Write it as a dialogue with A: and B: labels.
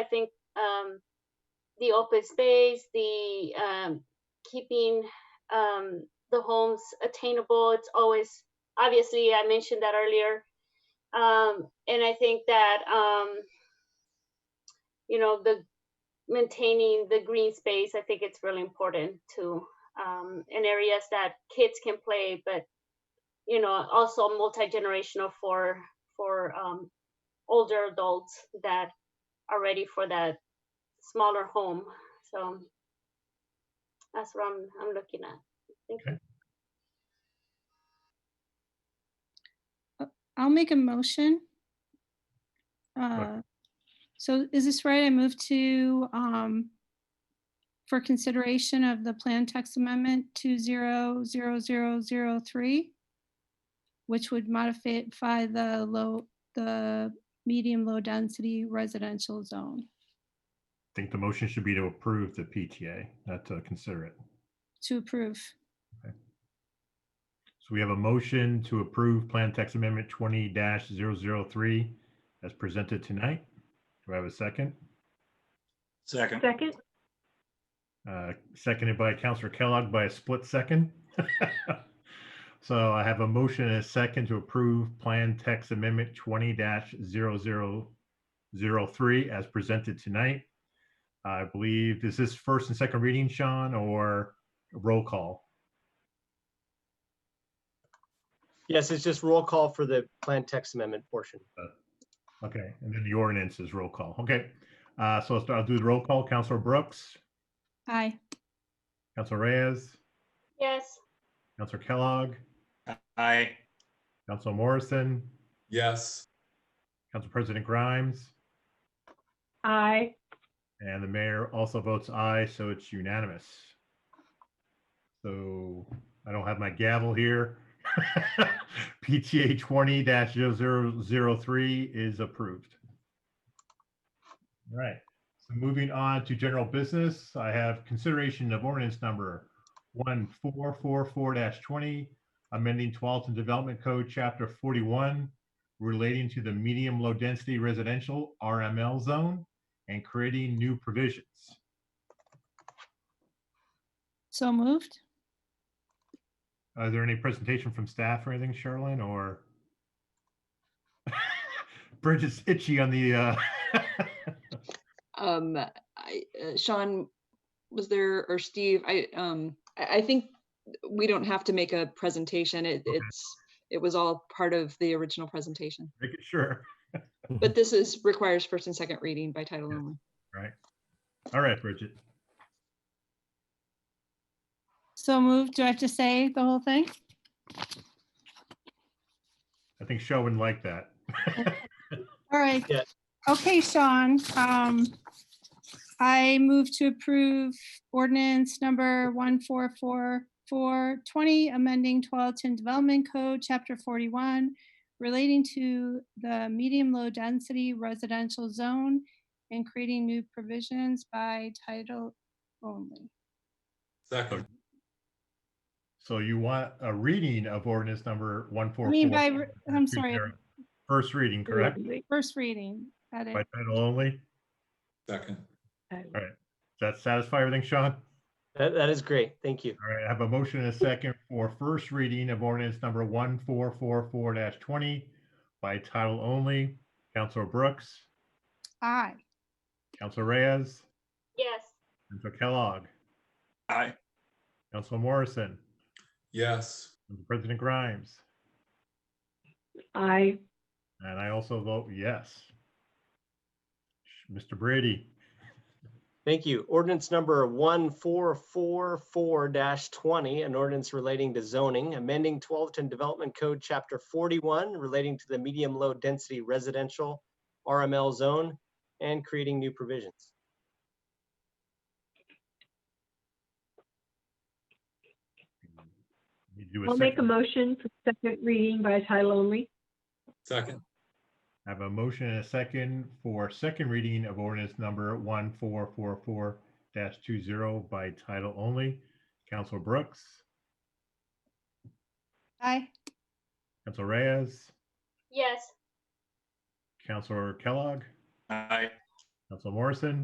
A: I think um, the open space, the um, keeping um, the homes attainable, it's always, obviously, I mentioned that earlier. Um, and I think that, um, you know, the maintaining the green space, I think it's really important too. Um, in areas that kids can play, but you know, also multi-generational for, for um, older adults that are ready for that smaller home. So that's what I'm, I'm looking at. Thank you.
B: I'll make a motion. Uh, So is this right? I move to, um, for consideration of the plan text amendment two zero zero zero zero three, which would modify the low, the medium low density residential zone
C: I think the motion should be to approve the PTA, not to consider it.
B: to approve.
C: So we have a motion to approve Plan Text Amendment twenty 3 as presented tonight. Do I have a second?
D: Second.
E: Second,
C: Uh, Seconded by Counselor Kellogg by a split second. So I have a motion and a second to approve Plan Text Amendment twenty 3 as presented tonight. I believe, is this first and second reading, Sean, or roll call?
F: Yes, it's just roll call for the plan text amendment portion.
C: Okay, and then the ordinance is roll call. Okay, uh, so I'll start- I'll do the roll call. Counselor Brooks,
B: Aye.
C: Counselor Reyes,
A: Yes,
C: Counselor Kellogg,
D: Aye.
C: Counselor Morrison,
D: Yes.
C: Council President Grimes,
E: aye.
C: and the mayor also votes aye, so it's unanimous. So I don't have my gavel here. PTA twenty 3 is approved. All right, so moving on to general business, I have consideration of ordinance number one four four four twenty, amending Tualatin Development Code, chapter forty-one, relating to the medium-low density residential RML zone and creating new provisions.
B: So moved.
C: Are Uh, there any presentation from staff or anything, Sherilyn, or? Bridget's itchy on the, uh,
G: Um, I, uh, Sean, was there, or Steve, I, um, I, I think we don't have to make a presentation. It, it's, it was all part of the original presentation.
C: making sure.
G: But this is, requires first and second reading by title
C: Yeah.
G: only.
C: All right, Bridget.
B: So moved. Do I have to say the whole thing?
C: I think Shaw wouldn't like that.
B: All right.
F: Yeah.
B: Okay, Sean, um, I move to approve ordinance number one four four four twenty, amending Tualatin Development Code, chapter forty-one, relating to the medium-low density residential zone and creating new provisions by title only.
D: Second.
C: So you want a reading of ordinance number one
B: I
C: four?
B: mean, by, re- I'm sorry,
C: First reading, correct?
B: first reading, edit.
C: By title only? Does
D: Second.
C: that satisfy everything, Sean?
F: That, that is great. Thank you.
C: All right, I have a motion and a second for first reading of ordinance number one four four four twenty by title only. Counselor Brooks,
B: Aye.
C: Counselor Reyes,
A: yes,
C: Counselor Kellogg,
D: Aye.
C: Counselor Morrison,
D: Yes.
C: Council President Grimes,
E: Aye,
C: and I also vote yes. Mr. Brady,
F: Thank you. Ordinance number one four four four twenty, an ordinance relating to zoning, amending Tualatin Development Code, Chapter forty-one, relating to the medium-low density residential RML zone and creating new provisions.
C: you do a
E: I'll make a
C: second.
E: motion for second reading by title only.
D: Second.
C: I have a motion and a second for second reading of ordinance number one four four four two zero by title only. Counselor Brooks,
B: Aye.
C: Counselor Reyes,
A: yes,
C: Counselor Kellogg,
D: Aye.
C: Council Morrison?